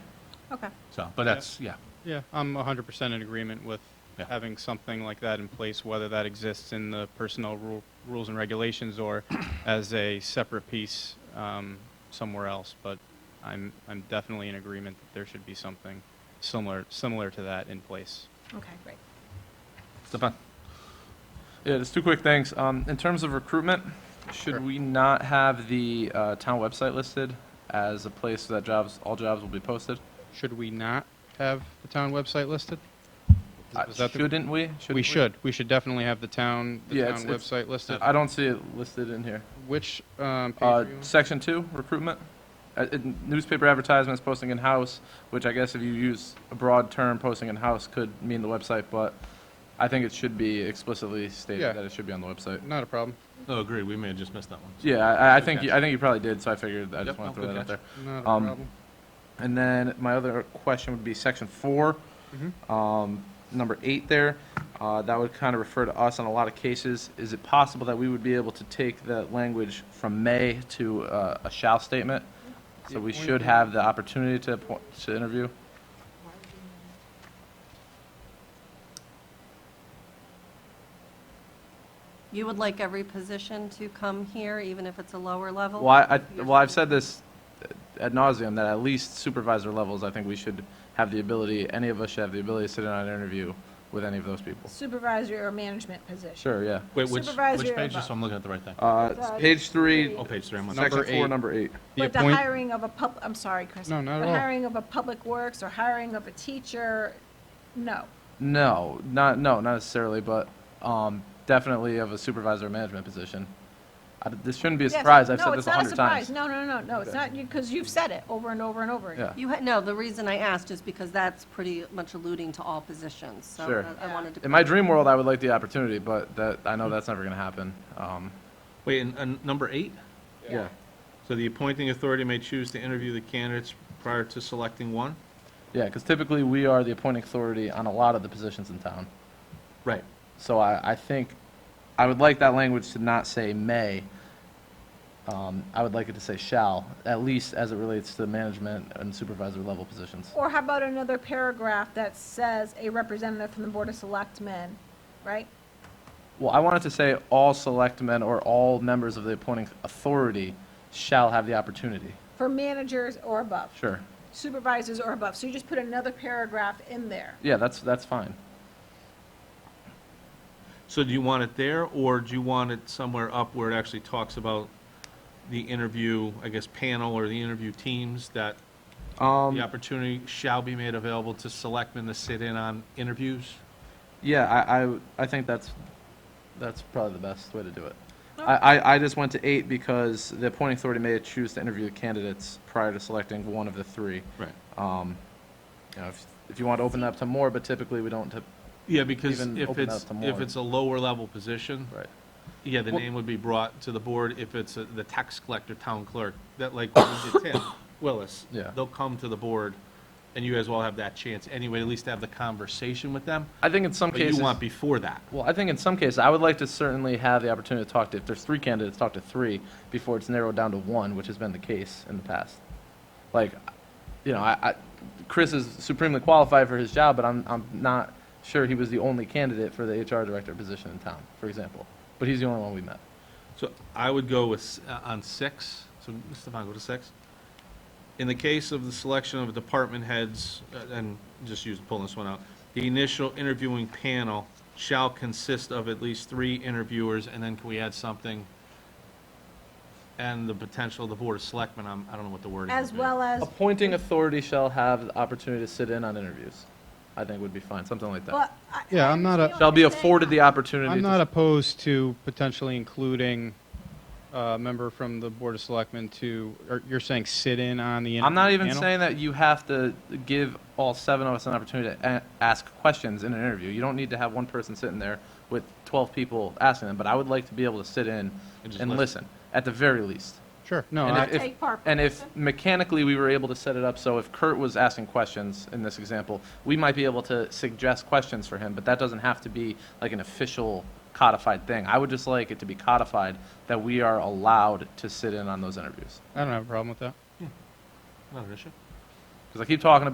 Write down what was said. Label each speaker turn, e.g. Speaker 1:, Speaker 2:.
Speaker 1: Okay.
Speaker 2: So, but that's, yeah.
Speaker 3: Yeah, I'm 100% in agreement with
Speaker 2: Yeah.
Speaker 3: having something like that in place, whether that exists in the personnel rule, rules and regulations or as a separate piece um, somewhere else. But I'm, I'm definitely in agreement that there should be something similar, similar to that in place.
Speaker 1: Okay, great.
Speaker 2: Stefan? Yeah, just two quick things. Um, in terms of recruitment, should
Speaker 3: Sure.
Speaker 2: we not have the uh, town website listed as a place that jobs, all jobs will be posted?
Speaker 3: Should we not have the town website listed? Is-
Speaker 2: Uh,
Speaker 3: is that the-
Speaker 2: Shouldn't we? Shouldn't
Speaker 3: we should. We should definitely have the town, the
Speaker 2: Yeah,
Speaker 3: town
Speaker 2: it's- it's-
Speaker 3: website listed.
Speaker 2: I don't see it listed in here.
Speaker 3: Which um, page?
Speaker 2: Uh,
Speaker 3: are you on?
Speaker 2: section two, recruitment. Uh, uh, newspaper advertisements posting in house, which I guess if you use a broad term, posting in house could mean the website, but I think it should be explicitly stated
Speaker 3: Yeah. Mm.
Speaker 2: that it should be on the website.
Speaker 3: not a problem.
Speaker 4: Oh, agree. We may have just missed that one.
Speaker 2: Yeah, I, I
Speaker 4: Good
Speaker 2: think you,
Speaker 4: catch.
Speaker 2: I think you probably did, so I figured I
Speaker 4: Yep,
Speaker 2: just want
Speaker 4: no,
Speaker 2: to throw
Speaker 4: good
Speaker 2: that out there.
Speaker 3: Not a
Speaker 2: Um,
Speaker 3: problem.
Speaker 2: And then my other question would be section four,
Speaker 3: Mhm.
Speaker 2: um, number eight there. Uh, that would kind of refer to us on a lot of cases. Is it possible that we would be able to take that language from may to uh, a shall statement? So we should have the opportunity to appoint, to interview?
Speaker 1: You would like every position to come here, even if it's a lower level?
Speaker 2: Well, I, I- well, I've said this ad nauseum that at least supervisor levels, I think we should have the ability, any of us should have the ability to sit in on an interview with any of those people.
Speaker 5: supervisory or management position.
Speaker 2: Sure, yeah.
Speaker 4: Wait, which,
Speaker 5: Supervisor
Speaker 4: which
Speaker 5: above.
Speaker 4: page? Just so I'm looking at the right thing.
Speaker 2: Uh, it's page three,
Speaker 4: Oh, page three. I'm on.
Speaker 3: Number
Speaker 2: section four,
Speaker 3: eight.
Speaker 2: number eight.
Speaker 3: The
Speaker 5: But the
Speaker 3: appoint-
Speaker 5: hiring of a pub, I'm sorry, Chris.
Speaker 3: No, not at all.
Speaker 5: The hiring of a public works or hiring of a teacher, no.
Speaker 2: No, not no, not necessarily, but um, definitely of a supervisor or management position. I, this shouldn't be a
Speaker 5: Yes.
Speaker 2: surprise. I've
Speaker 5: No,
Speaker 2: said
Speaker 5: it's
Speaker 2: this a
Speaker 5: not
Speaker 2: hundred
Speaker 5: surprise.
Speaker 2: times.
Speaker 5: No, no, no, no, it's
Speaker 2: Okay.
Speaker 5: not, because you've said it over and over and over again.
Speaker 2: Yeah.
Speaker 1: You, ha- no, the reason I asked is because that's pretty much alluding to all positions, so
Speaker 2: Sure.
Speaker 1: I- I wanted to.
Speaker 2: In my dream world, I would like the opportunity, but that I know that's never going to happen. Um,
Speaker 4: Wait, and, and number eight?
Speaker 2: yeah.
Speaker 4: So the appointing authority may choose to interview the candidates prior to selecting one?
Speaker 2: Yeah, because typically we are the appointing authority on a lot of the positions in town.
Speaker 4: Right.
Speaker 2: So I, I think I would like that language to not say may. Um, I would like it to say shall, at least as it relates to management and supervisor level positions.
Speaker 5: Or how about another paragraph that says a representative from the Board of Selectmen, right?
Speaker 2: Well, I wanted to say all selectmen or all members of the appointing authority shall have the opportunity.
Speaker 5: For managers or above,
Speaker 2: Sure.
Speaker 5: supervisors or above, so you just put another paragraph in there.
Speaker 2: Yeah, that's, that's fine.
Speaker 4: So do you want it there, or do you want it somewhere up where it actually talks about the interview, I guess, panel or the interview teams that the
Speaker 2: Um,
Speaker 4: opportunity shall be made available to selectmen to sit in on interviews?
Speaker 2: yeah, I, I, I think that's, that's probably the best way to do it. I, I, I just went to eight because the appointing authority may choose to interview the candidates prior to selecting one of the three.
Speaker 4: Right.
Speaker 2: Um, you know, if, if you want to open it up to more, but typically we don't, typ-
Speaker 4: Yeah, because
Speaker 2: Even
Speaker 4: if
Speaker 2: open
Speaker 4: it's,
Speaker 2: that to
Speaker 4: if
Speaker 2: more.
Speaker 4: it's a lower level position,
Speaker 2: right.
Speaker 4: yeah, the
Speaker 2: Well-
Speaker 4: name would be brought to the board if it's a- the tax collector, town clerk, that like what we did Tim Willis.
Speaker 2: Yeah.
Speaker 4: They'll come to the board, and you guys will have that chance anyway, at least to have the conversation with them.
Speaker 2: I think in some
Speaker 4: But you
Speaker 2: cases.
Speaker 4: want before that.
Speaker 2: Well, I think in some cases, I would like to certainly have the opportunity to talk to, if there's three candidates, talk to three before it's narrowed down to one, which has been the case in the past. Like, you know, I, I, Chris is supremely qualified for his job, but I'm, I'm not sure he was the only candidate for the HR director position in town, for example. But he's the only one we met.
Speaker 4: So I would go with, s- uh, on six, so Stefan, go to six. In the case of the selection of department heads, uh, and just use, pulling this one out, the initial interviewing panel shall consist of at least three interviewers, and then can we add something? And the potential of the board of selectmen, I'm, I don't know what the word is.
Speaker 5: As well as
Speaker 2: Appointing authority shall have the opportunity to sit in on interviews, I think would be fine, something like that.
Speaker 5: But I-
Speaker 3: Yeah,
Speaker 5: I
Speaker 3: I'm not a-
Speaker 5: understand
Speaker 2: Shall
Speaker 5: what
Speaker 2: be
Speaker 5: you're saying.
Speaker 2: afforded the opportunity
Speaker 3: I'm
Speaker 2: to
Speaker 3: not opposed to potentially including a member from the Board of Selectmen to, or you're saying sit in on the.
Speaker 2: I'm not
Speaker 3: interview
Speaker 2: even
Speaker 3: panel?
Speaker 2: saying that you have to give all seven of us an opportunity to a- ask questions in an interview. You don't need to have one person sitting there with 12 people asking them, but I would like to be able to sit in
Speaker 4: And just
Speaker 2: and
Speaker 4: listen.
Speaker 2: listen, at the very least.
Speaker 3: Sure, no,
Speaker 2: And
Speaker 3: I-
Speaker 2: if-
Speaker 5: Take part,
Speaker 2: And if mechanically we were able to set it up, so if Kurt was asking questions in this example, we might be able to suggest questions for him, but that doesn't have to be like an official codified thing. I would just like it to be codified that we are allowed to sit in on those interviews.
Speaker 3: I don't have a problem with that.
Speaker 4: Not an issue.
Speaker 2: Because I keep talking about